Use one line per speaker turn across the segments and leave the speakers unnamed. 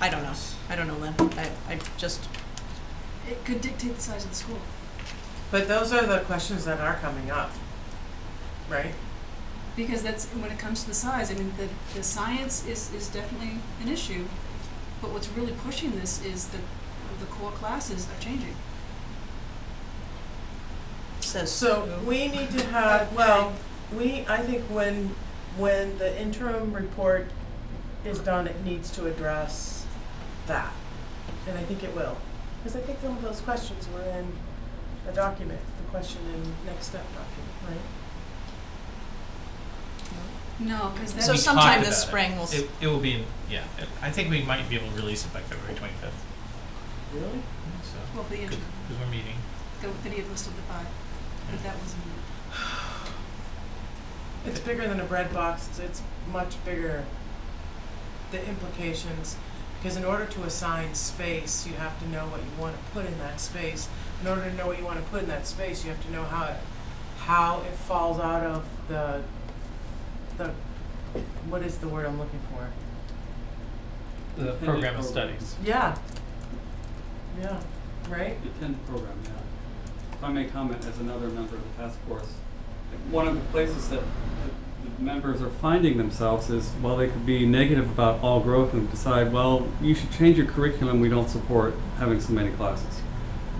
I don't know. I don't know, Lynn. I, I just,
It could dictate the size of the school.
But those are the questions that are coming up, right?
Because that's, when it comes to the size, I mean, the, the science is, is definitely an issue, but what's really pushing this is that the core classes are changing.
says.
So we need to have, well, we, I think when, when the interim report is done, it needs to address that. And I think it will, because I think some of those questions were in a document, the question in next step document,
No, because
So
that's,
We
sometime
talked
this
about it.
spring we'll s-
It, it will be, in- yeah, it- I think we might be able to release it by February twenty-fifth,
right? Really?
so,
well, the,
because
int-
we're meeting.
the, the need list of the five, but that wasn't, it.
It's bigger than a bread box, it's, it's much bigger, the implications, because in order to assign space, you have to know what you wanna put in that space. In order to know what you wanna put in that space, you have to know how it, how it falls out of the, the, what is the word I'm looking for?
The program of studies.
Yeah. Yeah, right?
The TEND program, yeah. If I may comment as another member of the task force, one of the places that the the members are finding themselves is, while they could be negative about all growth and decide, well, you should change your curriculum, we don't support having so many classes.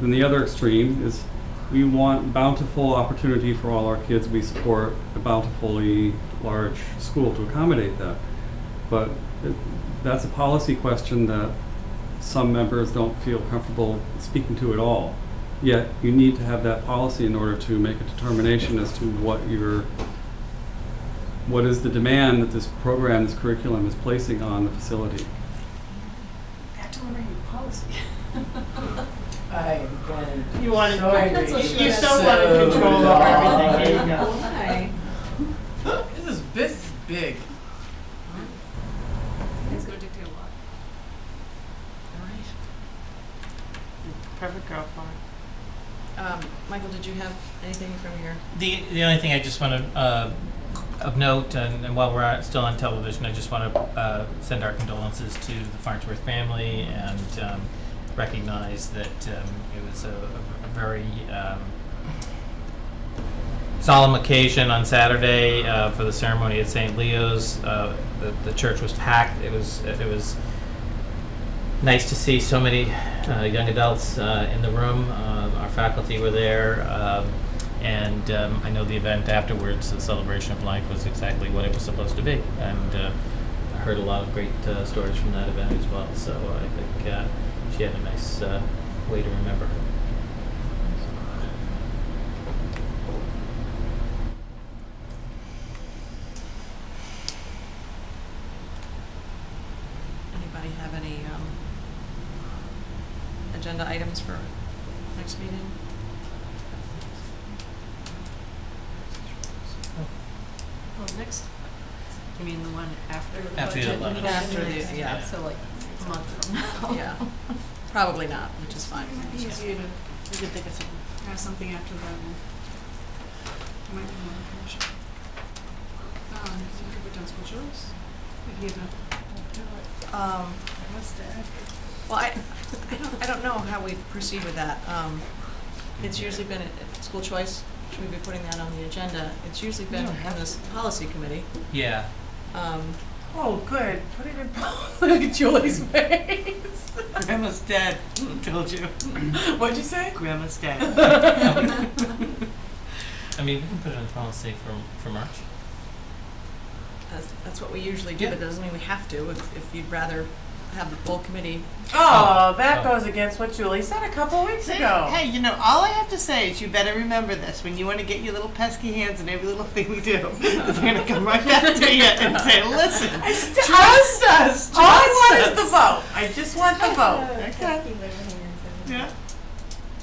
Then the other extreme is, we want bountiful opportunity for all our kids, we support a bountifully large school to accommodate that. But it- that's a policy question that some members don't feel comfortable speaking to at all. Yet, you need to have that policy in order to make a determination as to what your, what is the demand that this program, this curriculum is placing on the facility.
back to learning your policy.
I went.
You wanted,
So
That's what she
you so
said.
wanted control over
So-
everything.
Why?
This is, this is big.
It's gonna dictate a lot.
Perfect girl for it.
Um, Michael, did you have anything from your?
The, the only thing I just want to, uh, of note, and, and while we're out- still on television, I just want to, uh, send our condolences to the Farnsworth family and, um, recognize that, um, it was a, a very, um, solemn occasion on Saturday, uh, for the ceremony at St. Leo's. Uh, the, the church was packed. It was, it was nice to see so many, uh, young adults, uh, in the room. Uh, our faculty were there, um, and um, I know the event afterwards, the celebration of life, was exactly what it was supposed to be. And uh, I heard a lot of great uh, stories from that event as well. So I think uh, she had a nice uh, way to remember her.
Anybody have any um, agenda items for next meeting?
Well, next, you mean the one after the budget?
After the 11th.
After the-
Next,
yeah.
So like a month from now.
Yeah, probably not, which is fine.
It'd be easier to,
We could think of something.
have something after that one. It might be more information. Um, we could put down school choice. We could give a,
Um,
what's that?
well, I, I don't, I don't know how we proceed with that. Um, it's usually been, uh, school choice, should we be putting that on the agenda? It's usually been
don't
on this policy committee.
Yeah.
Um,
Oh, good. Put it in Look at Julie's face.
Grandma's dead. Told you.
What'd you say?
Grandma's dead.
I mean, we can put it in policy for, for March.
That's, that's what we usually do, but that doesn't mean we have to. If, if you'd rather have the full committee,
Oh, that
Oh.
goes against what Julie said a couple weeks
Say,
ago.
Hey, you know, all I have to say is you better remember this when you want to get your little pesky hands in every little thing we do. They're going to come right back to you and say, listen, trust us. Trust
All I want is the
us."
vote. I just want the vote.
Okay. Yeah.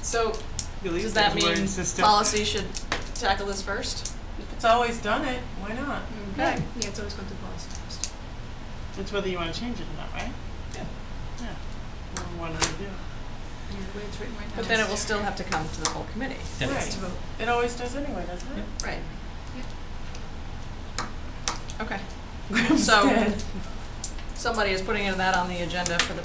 so
Delete
does that
those word
mean
system.
policy should tackle this first?
If it's always done it, why not?
Okay.
Yeah, it's always going to policy first.
It's whether you want to change it or not, right?
Yeah.
Yeah. Well, What do we do?
Yeah, the way it's written right now.
But then it will still have to come to the full committee.
Right. It always does anyway, doesn't it?
Right. Okay,
Graham's
So-
dead.
somebody is putting that on the agenda for the